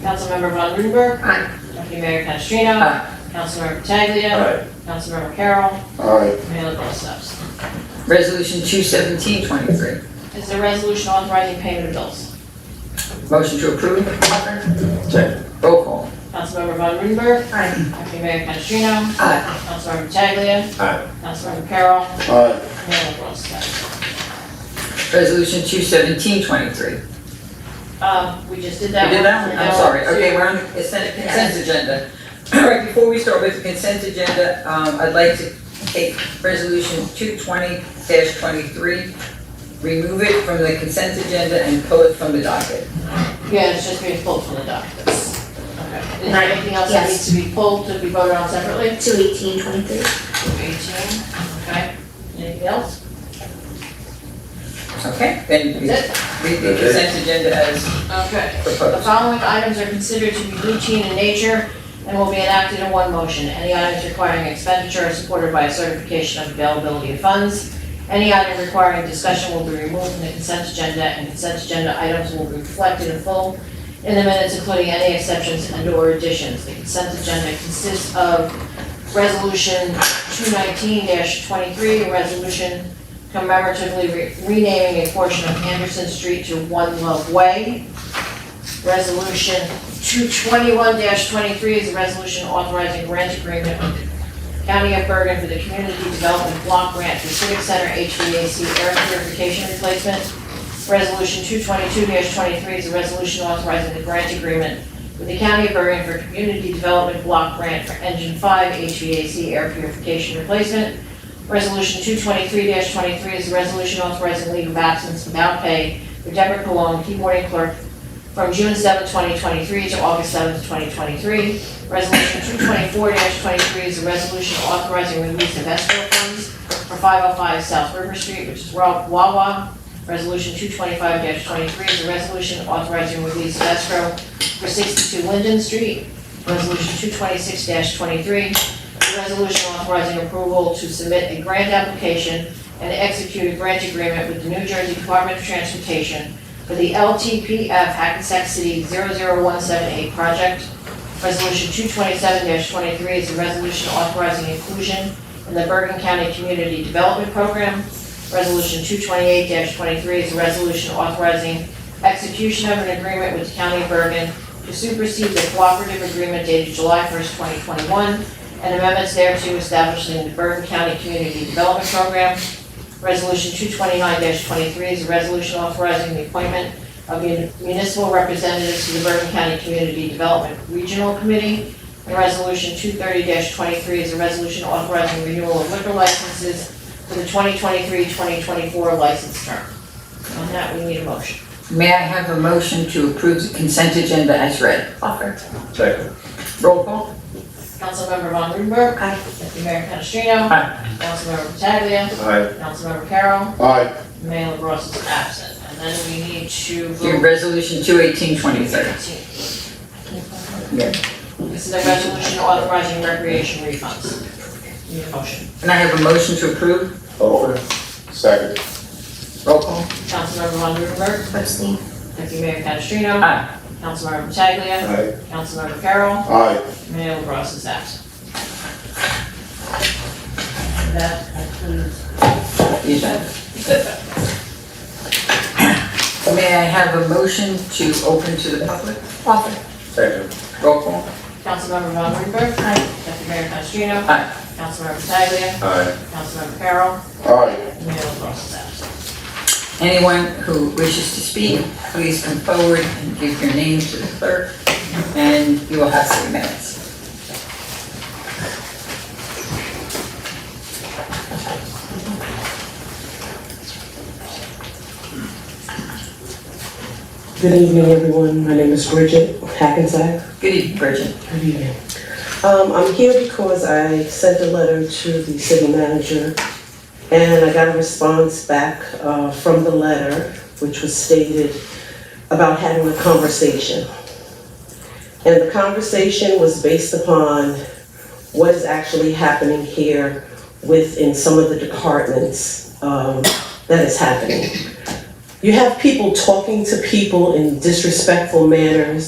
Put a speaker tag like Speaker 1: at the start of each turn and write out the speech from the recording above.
Speaker 1: Councilmember Von Rudenberg.
Speaker 2: Aye.
Speaker 1: Deputy Mayor Canestrino.
Speaker 2: Aye.
Speaker 1: Councilmember Pataglia.
Speaker 3: Aye.
Speaker 1: Councilmember Carroll.
Speaker 3: Aye.
Speaker 1: Mayor LaBrus absent.
Speaker 2: Resolution 21723.
Speaker 1: Is there a resolution authorizing payment of bills?
Speaker 2: Motion to approve.
Speaker 3: Second.
Speaker 2: Roll call.
Speaker 1: Councilmember Von Rudenberg.
Speaker 2: Aye.
Speaker 1: Deputy Mayor Canestrino.
Speaker 2: Aye.
Speaker 1: Councilmember Pataglia.
Speaker 3: Aye.
Speaker 1: Councilmember Carroll.
Speaker 3: Aye.
Speaker 1: Mayor LaBrus absent.
Speaker 2: Resolution 21723. We did
Speaker 1: Uh, we just did that.
Speaker 2: that one? I'm sorry.
Speaker 1: So-
Speaker 2: Okay, we're on the consent consent agenda. All right, before we start with the consent agenda, um, I'd like to take Resolution 220-23, remove it from the consent agenda and pull it from the docket.
Speaker 1: Yeah, it's just being pulled from the documents. Okay. Is there anything else that
Speaker 4: Yes.
Speaker 1: needs to be pulled to be voted on separately?
Speaker 4: Two eighteen twenty-three.
Speaker 1: 18, okay. Anything else?
Speaker 2: Okay? Then we
Speaker 1: That's it?
Speaker 2: read the consent agenda as
Speaker 1: Okay. The
Speaker 2: proposed.
Speaker 1: following items are considered to be routine in nature and will be enacted in one motion. Any items requiring expenditure are supported by a certification of availability of funds. Any item requiring discussion will be removed from the consent agenda, and consent agenda items will be reflected in full in the minutes, including any exceptions and/or additions. The consent agenda consists of Resolution 219-23, a resolution commemoratively re- renaming a portion of Anderson Street to One Love Way. Resolution 221-23 is a resolution authorizing grant agreement with the County of Bergen for the Community Development Block Grant for Civic Center HVAC air purification replacement. Resolution 222-23 is a resolution authorizing the grant agreement with the County of Bergen for Community Development Block Grant for Engine 5 HVAC air purification replacement. Resolution 223-23 is a resolution authorizing leave of absence without pay for Deborah Cologne, keyboarding clerk, from June 7, 2023 to August 7, 2023. Resolution 224-23 is a resolution authorizing release of escrow funds for 505 South River Street, which is Wa- Wawa. Resolution 225-23 is a resolution authorizing release of escrow for 62 Linden Street. Resolution 226-23, a resolution authorizing approval to submit a grant application and execute a grant agreement with the New Jersey Department of Transportation for the LTPF Hackensack City 00178 project. Resolution 227-23 is a resolution authorizing inclusion in the Bergen County Community Development Program. Resolution 228-23 is a resolution authorizing execution of an agreement with the County of Bergen to supersede the cooperative agreement dated July 1st, 2021, and amendments thereto establishing the Bergen County Community Development Program. Resolution 229-23 is a resolution authorizing the appointment of mun- municipal representatives to the Bergen County Community Development Regional Committee. And Resolution 230-23 is a resolution authorizing renewal of liquor licenses for the 2023-2024 license term. On that, we need a motion.
Speaker 2: May I have a motion to approve the consent agenda as read?
Speaker 4: Offer.
Speaker 3: Second.
Speaker 2: Roll call.
Speaker 1: Councilmember Von Rudenberg.
Speaker 4: Aye.
Speaker 1: Deputy Mayor Canestrino.
Speaker 2: Aye.
Speaker 1: Councilmember Pataglia.
Speaker 3: Aye.
Speaker 1: Councilmember Carroll.
Speaker 3: Aye.
Speaker 1: Mayor LaBrus is absent. And then we need to vote.
Speaker 2: Your resolution 21823. Yeah.
Speaker 1: This is a resolution authorizing recreation refunds. Need a motion.
Speaker 2: Can I have a motion to approve?
Speaker 3: Over. Second.
Speaker 2: Roll call.
Speaker 1: Councilmember Von Rudenberg,
Speaker 4: Abstain.
Speaker 1: Deputy Mayor Canestrino.
Speaker 2: Aye.
Speaker 1: Councilmember Pataglia.
Speaker 3: Aye.
Speaker 1: Councilmember Carroll.
Speaker 3: Aye.
Speaker 1: Mayor LaBrus is absent. That concludes.
Speaker 2: The agenda. May I have a motion to open to the public?
Speaker 4: Offer.
Speaker 3: Second.
Speaker 2: Roll call.
Speaker 1: Councilmember Von Rudenberg.
Speaker 4: Aye.
Speaker 1: Deputy Mayor Canestrino.
Speaker 2: Aye.
Speaker 1: Councilmember Pataglia.
Speaker 3: Aye.
Speaker 1: Councilmember Carroll.
Speaker 3: Aye.
Speaker 1: Mayor LaBrus is absent.
Speaker 2: Anyone who wishes to speak, please come forward and give your name to the clerk, and you will have three minutes.
Speaker 5: Good evening, everyone. My name is Bridget Hackensack.
Speaker 2: Good evening, Bridget.
Speaker 5: Good evening. Um, I'm here because I sent a letter to the city manager, and I got a response back, uh, from the letter, which was stated about having a conversation. And the conversation was based upon what is actually happening here within some of the departments, um, that is happening. You have people talking to people in disrespectful manners,